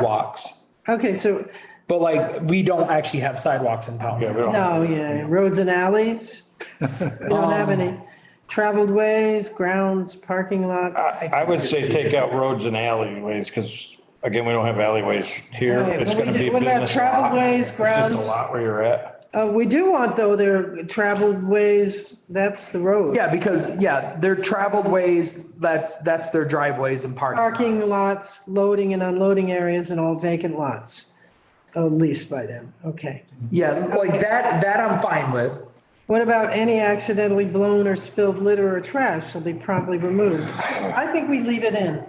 sidewalks, Okay, so, but like, we don't actually have sidewalks in Yeah, we town. don't- no, yeah, roads and alleys. We don't have any. Traveled ways, grounds, parking lots. I I would say take out roads and alleyways, because again, we don't have alleyways here. Right, It's but we gonna be do- what about business traveled lot. ways, It's grounds? Just a lot where you're at. Uh, we do want though, their traveled ways, that's the road. Yeah, because, yeah, they're traveled ways, that's, that's their driveways and parking. Parking lots. lots, loading and unloading areas and all vacant lots uh, leased by them, okay. Yeah, like that, that I'm fine with. What about any accidentally blown or spilled litter or trash shall be promptly removed? I think we leave it in.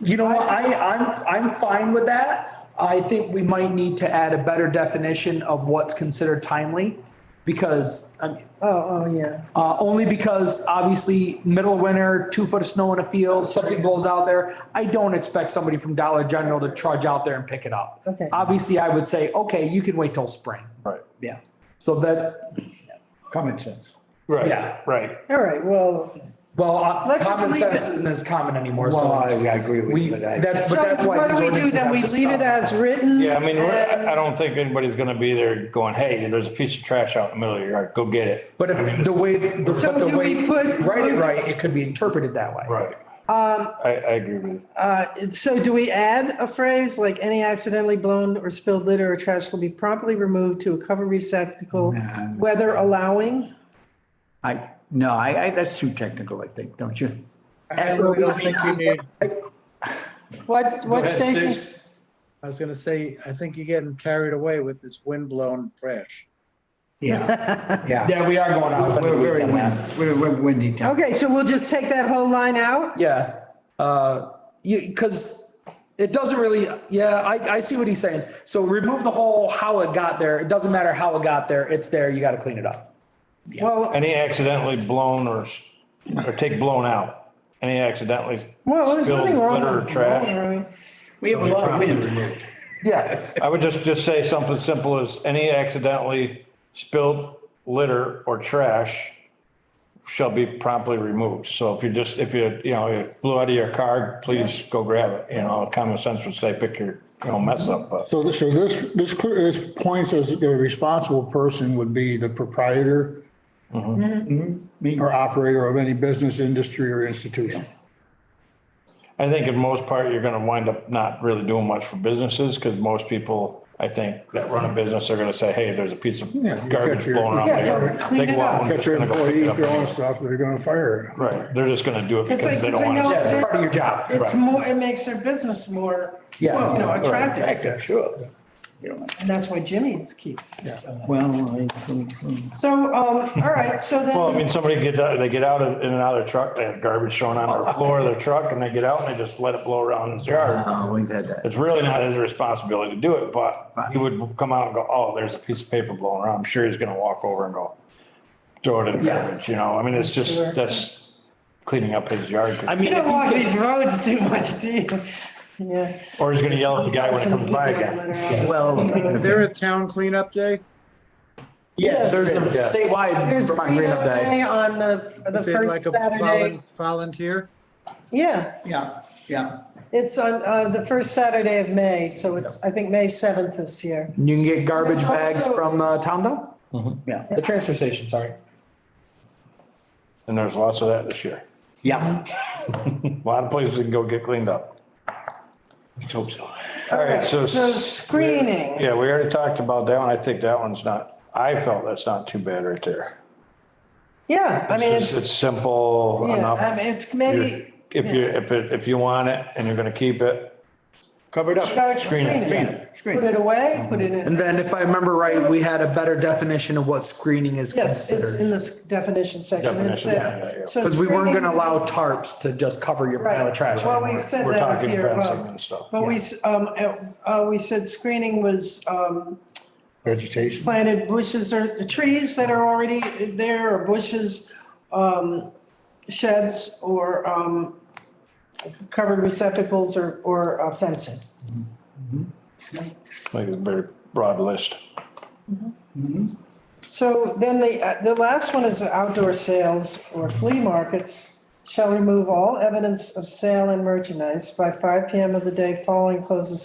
You know, what, I, I'm, I'm fine with that. I think we might need to add a better definition of what's considered timely. Because, I mean, Oh, oh, yeah. uh, only because obviously middle of winter, two foot of snow in a field, something blows out there. I don't expect somebody from Dollar General to trudge out there and pick it up. Okay. Obviously, I would say, okay, you can wait till spring. Right. Yeah, So that, common sense. Yeah. Right, right. All right, well, well, uh, Let's just common leave sense it. isn't as common anymore, so. Well, I it's- I agree with We, you, but I. that's, so but that's why. what these do we do ordinances then? have We to leave it stop. as written? Yeah, I mean, and- I don't think anybody's gonna be there going, hey, there's a piece of trash out in the middle of your yard, go get it. But if the way, the- So but the do way, we put- write it right, it could be interpreted that way. Right. Um. I, I agree with you. Uh, So do we add a phrase like any accidentally blown or spilled litter or trash will be promptly removed to a cover receptacle, Nah. whether allowing? I, no, I, I, that's too technical, I think, don't you? I really don't think you need, What, what Stacy? I was gonna say, I think you're getting carried away with this windblown trash. Yeah, yeah. Yeah, we are going off. on a We're weird very tangent. windy, we're, we're windy town. Okay, so we'll just take that whole line out? Yeah, uh, you, because it doesn't really, yeah, I, I see what he's saying. So remove the whole how it got there. It doesn't matter how it got there. It's there. You got to clean it up. Well, Any accidentally blown or, s- or take blown out, any accidentally. well, there's spilled nothing wrong. Litter or with- trash. We have a lot of wind. Yeah, I would just, just say something simple as any accidentally spilled litter or trash shall be promptly removed. So if you just, if you, you know, you blew out of your car, please go grab it. You know, common sense would say, pick your, you know, mess up, but. So this, so this, this, clear- this points as the responsible person would be the proprietor Mm-hmm. or operator of any business, industry or institution. I think in most part, you're gonna wind up not really doing much for businesses, because most people, I think, that run a business are gonna say, hey, there's a piece of Yeah, you garbage got your- blowing around my Yeah, yard. clean They it go out up. and Get just your gonna go pick it employees, up your own anyway. stuff, they're gonna fire you. Right, they're just gonna do it because like- they it's don't like, want no, yeah, it's to. part of your job. It's more, it makes their business more, you Yeah. know, attractive. Sure. You know, And that's why Jimmy's keeps. Well, I- So, um, all right, so then. Well, I mean, somebody get, out- they get out of- in and out of their truck, they have garbage thrown on their floor of their truck, and they get out and they just let it blow around his yard. oh, we've had that. It's really not his responsibility to do it, but he would come out and go, oh, there's a piece of paper blowing around. I'm sure he's gonna walk over and go throw it in the garbage, you know? I mean, it's just, that's cleaning up his yard. I mean, You don't if you walk could- these roads too much, do you? Yeah. Or he's gonna yell at the guy when it comes by again. Is Well, there a town cleanup day? yes, there's a yeah. statewide There's Vermont Green Up cleanup Day. day on the, the Is it first like a Saturday. volun- volunteer? Yeah, Yeah, yeah. it's on, uh, the first Saturday of May, so it's, I think, May seventh this year. You can get garbage There's bags also- from uh, town dump, Yeah, the transfer station, sorry. And there's lots of that this year. yeah. A lot of places can go get cleaned up. Let's hope so. All right, so. So screening, Yeah, we already talked about that one. I think that one's not, I felt that's not too bad right there. yeah, I mean, It's it's, it's simple yeah, enough. I mean, it's You're- maybe. If you, if it, if you want it and you're gonna keep it, Covered up. about screen it, screening. screen screen it. Put it away, put it in. And then if I remember right, we had a better definition of what screening is Yes, it's in considered. this definition section. It Definition, said- yeah, yeah, yeah. so Because we weren't screening- gonna allow tarps to just cover your pile of Right. trash. Well, we anymore. said we're that up talking here fencing above. and stuff. But we, s- um, uh, uh, we said screening was, um, Vegetation. planted bushes or the trees that are already there or bushes, um, sheds or, um, covered receptacles or, or uh, fencing. like a very broad list. So then the, uh, the last one is outdoor sales or flea markets. shall remove all evidence of sale and merchandise by five PM of the day following close of